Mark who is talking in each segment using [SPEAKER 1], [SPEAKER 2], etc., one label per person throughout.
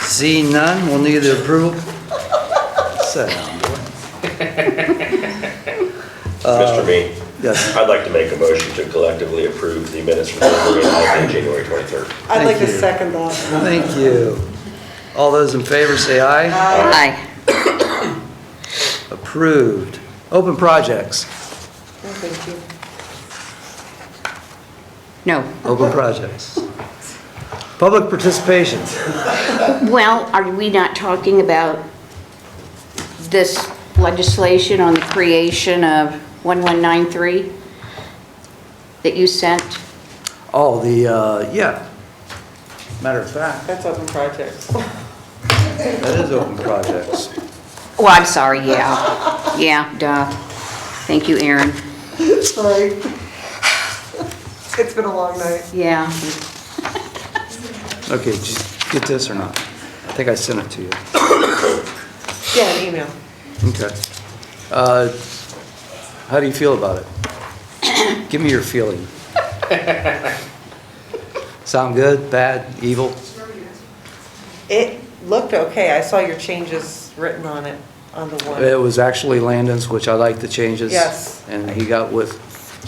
[SPEAKER 1] Seeing none, we'll need the approval. Sit down, boy.
[SPEAKER 2] Mr. Mead,
[SPEAKER 1] Yes,
[SPEAKER 2] I'd like to make a motion to collectively approve the minutes from the meeting on January 23rd.
[SPEAKER 3] I'd like to
[SPEAKER 1] Thank you.
[SPEAKER 3] second that.
[SPEAKER 1] thank you. All those in favor say aye.
[SPEAKER 4] Aye.
[SPEAKER 1] Approved. Open projects,
[SPEAKER 3] Oh, Thank you.
[SPEAKER 4] No.
[SPEAKER 1] open projects. Public participation.
[SPEAKER 4] Well, are we not talking about this legislation on the creation of 1193 that you sent?
[SPEAKER 1] Oh, the, uh, yeah. Matter of fact,
[SPEAKER 3] That's open projects.
[SPEAKER 1] that is open projects.
[SPEAKER 4] Oh, I'm sorry, yeah. Yeah, duh. Thank you, Aaron.
[SPEAKER 3] Sorry. It's been a long night.
[SPEAKER 4] Yeah.
[SPEAKER 1] Okay, did you get this or not? I think I sent it to you.
[SPEAKER 3] Yeah, an email.
[SPEAKER 1] Okay. Uh, How do you feel about it? Give me your feeling. Sound good, bad, evil?
[SPEAKER 3] It looked okay. I saw your changes written on it, on the one.
[SPEAKER 1] It was actually Landon's, which I like the changes.
[SPEAKER 3] Yes.
[SPEAKER 1] And he got with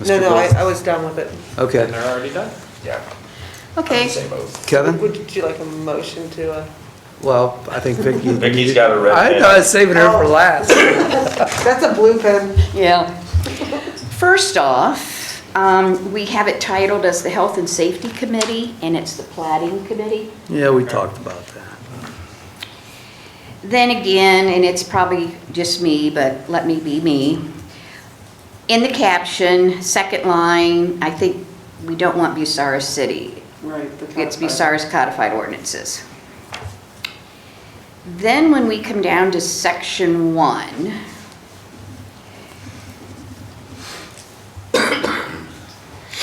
[SPEAKER 3] No,
[SPEAKER 1] Mr.
[SPEAKER 3] no, I,
[SPEAKER 1] Bill.
[SPEAKER 3] I was done with it.
[SPEAKER 1] Okay.
[SPEAKER 2] already done? Yeah.
[SPEAKER 4] Okay.
[SPEAKER 2] Same oath.
[SPEAKER 1] Kevin?
[SPEAKER 3] Would you like a motion to, uh,
[SPEAKER 1] Well, I think Vicky.
[SPEAKER 2] Vicky's got a red
[SPEAKER 1] I know, I was saving her for
[SPEAKER 3] Oh.
[SPEAKER 1] last.
[SPEAKER 3] that's a blue pen.
[SPEAKER 4] Yeah. First off, um, we have it titled as the Health and Safety Committee, and it's the Plating Committee.
[SPEAKER 1] Yeah, we talked about that.
[SPEAKER 4] Then again, and it's probably just me, but let me be me. In the caption, second line, I think we don't want Bucyrus City.
[SPEAKER 3] Right.
[SPEAKER 4] It's Bucyrus codified ordinances. Then when we come down to section one,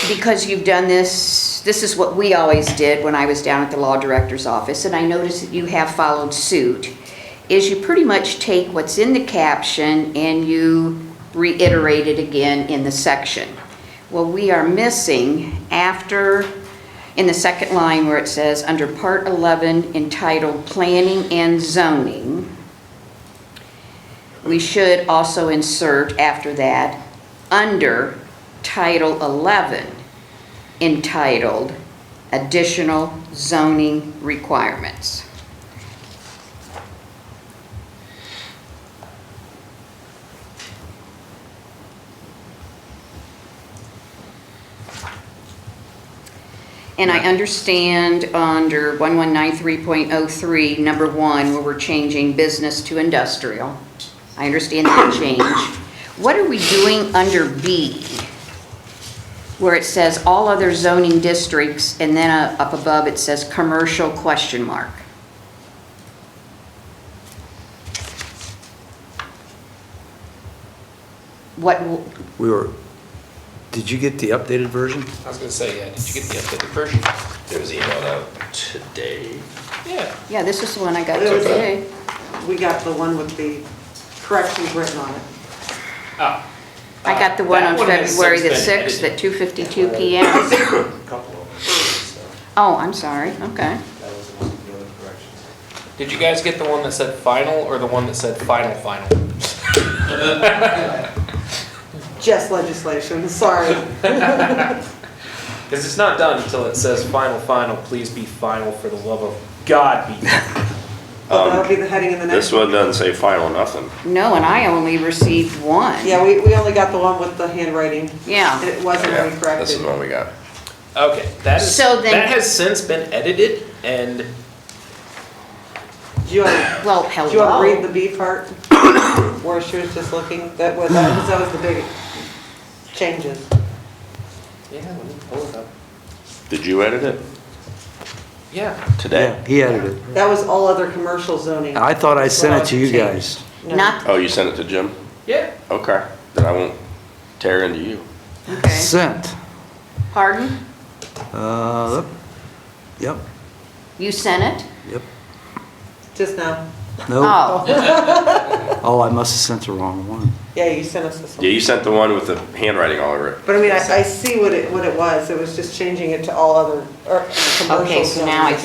[SPEAKER 4] because you've done this, this is what we always did when I was down at the law director's office, and I noticed that you have followed suit, is you pretty much take what's in the caption and you reiterate it again in the section. Well, we are missing after, in the second line where it says, under Part 11 entitled Planning and Zoning, we should also insert after that, under Title 11, entitled Additional Zoning Requirements. And I understand under 1193.03, number one, where we're changing business to industrial. I understand that change. What are we doing under B? Where it says all other zoning districts, and then uh, up above it says commercial question mark. What, w-
[SPEAKER 1] We were, did you get the updated version?
[SPEAKER 5] I was gonna say, yeah, did you get the updated version?
[SPEAKER 2] It was emailed out today.
[SPEAKER 5] Yeah.
[SPEAKER 4] yeah, this is the one I got
[SPEAKER 2] It was-
[SPEAKER 4] today.
[SPEAKER 3] We got the one with the corrections written on it.
[SPEAKER 5] Oh.
[SPEAKER 4] I got the one on February the 6th at 2:52 PM.
[SPEAKER 6] A couple of them, so
[SPEAKER 4] Oh, I'm sorry, okay.
[SPEAKER 6] that was one of the other corrections.
[SPEAKER 5] Did you guys get the one that said final or the one that said final, final?
[SPEAKER 3] Just legislation, sorry.
[SPEAKER 2] Um,
[SPEAKER 5] Because it's not done until it says final, final, please be final for the love of God be.
[SPEAKER 3] But that'll be the heading in the
[SPEAKER 2] This
[SPEAKER 3] next.
[SPEAKER 2] one doesn't say final nothing.
[SPEAKER 4] No, and I only received one.
[SPEAKER 3] Yeah, we, we only got the one with the handwriting.
[SPEAKER 4] Yeah.
[SPEAKER 3] It wasn't
[SPEAKER 2] Yeah,
[SPEAKER 3] really
[SPEAKER 2] This is
[SPEAKER 3] corrected.
[SPEAKER 2] the one we got.
[SPEAKER 5] Okay, that is,
[SPEAKER 4] So then-
[SPEAKER 5] that has since been edited and
[SPEAKER 3] Do you want,
[SPEAKER 4] Well,
[SPEAKER 3] do you want to read
[SPEAKER 4] hello.
[SPEAKER 3] the B part? Where she was just looking, that was, that was- that was the big changes.
[SPEAKER 5] yeah, let me pull it up.
[SPEAKER 2] Did you edit it
[SPEAKER 5] Yeah,
[SPEAKER 1] Yeah,
[SPEAKER 2] today?
[SPEAKER 1] He edited it.
[SPEAKER 3] That was all other commercial zoning.
[SPEAKER 1] I thought I sent it to you guys.
[SPEAKER 3] No.
[SPEAKER 4] Not,
[SPEAKER 2] Oh, you sent it to Jim?
[SPEAKER 5] yeah.
[SPEAKER 2] Okay, then I won't tear into you.
[SPEAKER 4] okay,
[SPEAKER 1] Sent.
[SPEAKER 4] pardon?
[SPEAKER 1] Uh, yep,
[SPEAKER 4] You sent it?
[SPEAKER 1] yep.
[SPEAKER 3] Just now.
[SPEAKER 1] No.
[SPEAKER 4] Oh,
[SPEAKER 1] Oh, I must have sent the wrong one.
[SPEAKER 3] Yeah, you sent us this
[SPEAKER 2] Yeah,
[SPEAKER 3] one.
[SPEAKER 2] you sent the one with the handwriting all over it.
[SPEAKER 3] But I mean, I, I see what it, what it was. It was just changing it to all other, or commercial zoning.
[SPEAKER 4] okay, so now I